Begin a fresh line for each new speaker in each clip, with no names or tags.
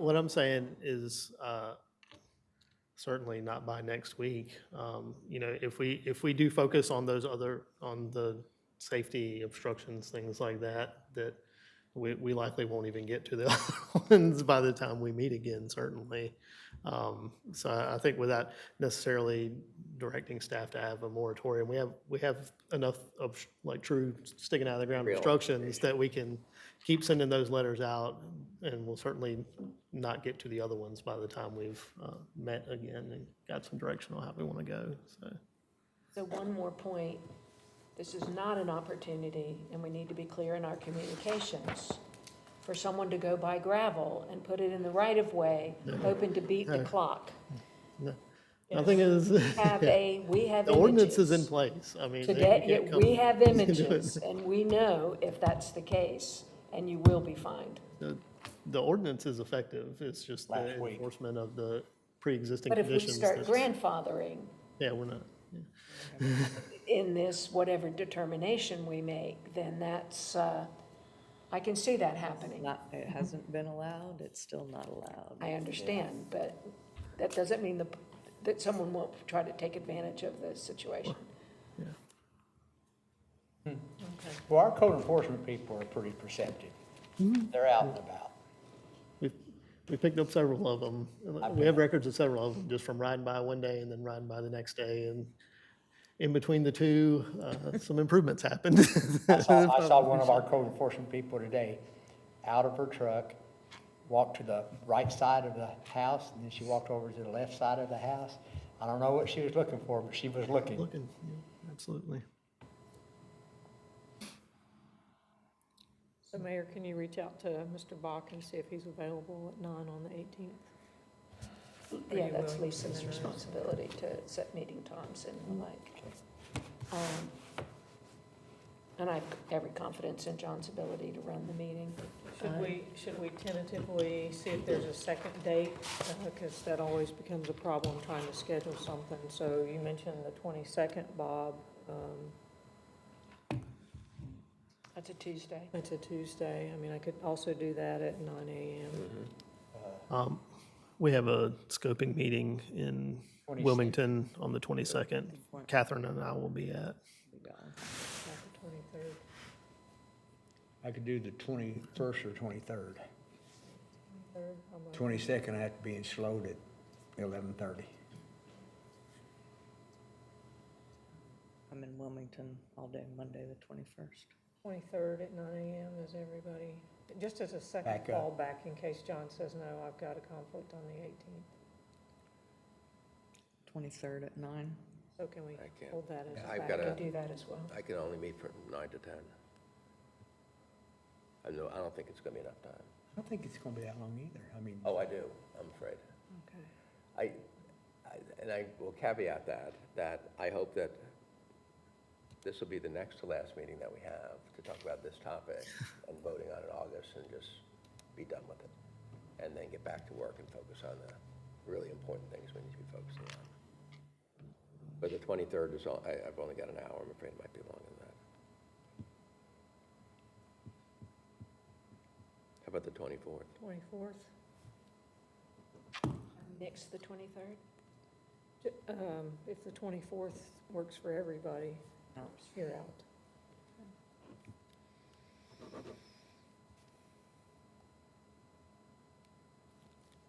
what I'm saying is, uh, certainly not by next week. Um, you know, if we, if we do focus on those other, on the safety obstructions, things like that, that we, we likely won't even get to the other ones by the time we meet again, certainly. Um, so I I think without necessarily directing staff to have a moratorium, we have, we have enough of, sh- like, true sticking out of the ground
Real
obstructions that we can keep sending those letters out, and we'll certainly not get to the other ones by the time we've uh, met again and got some direction on how we want to go, so.
So one more point, this is not an opportunity, and we need to be clear in our communications, for someone to go buy gravel and put it in the right-of-way, hoping to beat the clock.
Nothing is,
Have
the
a, we have images.
ordinance is in place, I mean.
Today,
you can't
yeah,
come-
we have
you can do it.
images, and we know if that's the case, and you will be fined.
The- The ordinance is effective, it's just the
Last week.
enforcement of the pre-existing
But if we
conditions.
start
that's-
grandfathering
Yeah, we're not, yeah.
in this, whatever determination we make, then that's, uh, I can see that happening.
Not, it hasn't been allowed, it's still not allowed.
Mm-hmm. I understand, but that doesn't mean the, that someone won't try to take advantage of the situation.
Well, our code enforcement people are pretty perceptive. They're out and about.
We've, we picked up several of them. We have records of several of them, just from riding by one day and then riding by the next day. And in between the two, uh, some improvements happened.
I saw, I saw one of our code enforcement people today, out of her truck, walked to the right side of the house, and then she walked over to the left side of the house. I don't know what she was looking for, but she was looking.
Looking, yeah, Absolutely.
So Mayor, can you reach out to Mr. Bach and see if he's available at nine on the eighteenth?
Yeah, that's Lisa's responsibility to set meeting times and the like. Um, And I have every confidence in John's ability to run the meeting.
Should we, should we tentatively see if there's a second date? Because that always becomes a problem trying to schedule something. So you mentioned the twenty-second, Bob. Um,
That's a Tuesday.
It's a Tuesday. I mean, I could also do that at nine
Mm-hmm.
AM.
Um, We have a scoping meeting in
26th.
Wilmington on the 22nd. Catherine and I will be at.
Not the twenty-third.
I could do the twenty-first or twenty-third.
Third, I'm like,
Twenty-second, I have to be in Sloat at eleven-thirty.
I'm in Wilmington all day, Monday, the twenty-first.
Twenty-third at nine AM is everybody, just as a second
Back up.
fallback in case John says, no, I've got a conflict on the eighteenth.
Twenty-third at nine.
So can we
I can't.
hold that as a
I've
backup?
got
I
a-
do that as well.
I can only meet from nine to ten. I know, I don't think it's gonna be enough time.
I don't think it's gonna be that long either. I mean,
Oh, I do, I'm afraid.
Okay.
I, I- and I will caveat that, that I hope that this will be the next to last meeting that we have to talk about this topic and voting on it in August and just be done with it. And then get back to work and focus on the really important things we need to be focusing on. But the 23rd is, all- I- I've only got an hour, I'm afraid it might be longer than that. How about the 24th?
Twenty-fourth?
Next, the 23rd?
Um, if the twenty-fourth works for everybody, you're out.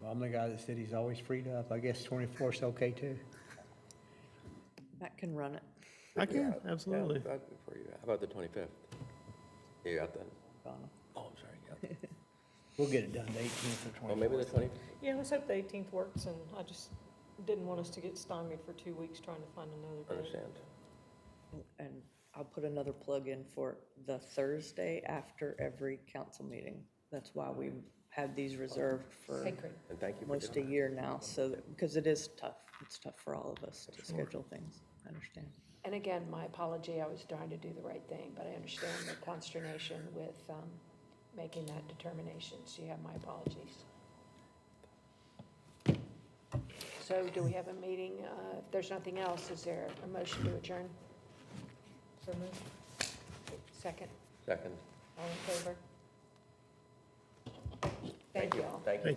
I'm the guy that said he's always freed up. I guess twenty-fourth's okay too.
That can run it,
I can,
Yeah,
absolutely.
that- for you. How about the 25th? You got that?
Donna.
Oh, I'm sorry. you got that.
We'll get it done the eighteenth or
Well, maybe the
twenty-fourth.
20,
Yeah, let's hope the eighteenth works, and I just didn't want us to get stymied for two weeks trying to find another date.
understand.
And I'll put another plug in for the Thursday after every council meeting. That's why we had these reserved for
Sacred.
And thank you for
almost a
doing that.
year now, so, that- because it is tough. It's tough for all of us to schedule things, I understand.
And again, my apology, I was trying to do the right thing, but I understand the consternation with um, making that determination, so you have my apologies. So do we have a meeting? Uh, If there's nothing else, is there a motion to adjourn?
So moved.
Second,
Second.
all in favor? Thank you all.
Thank you.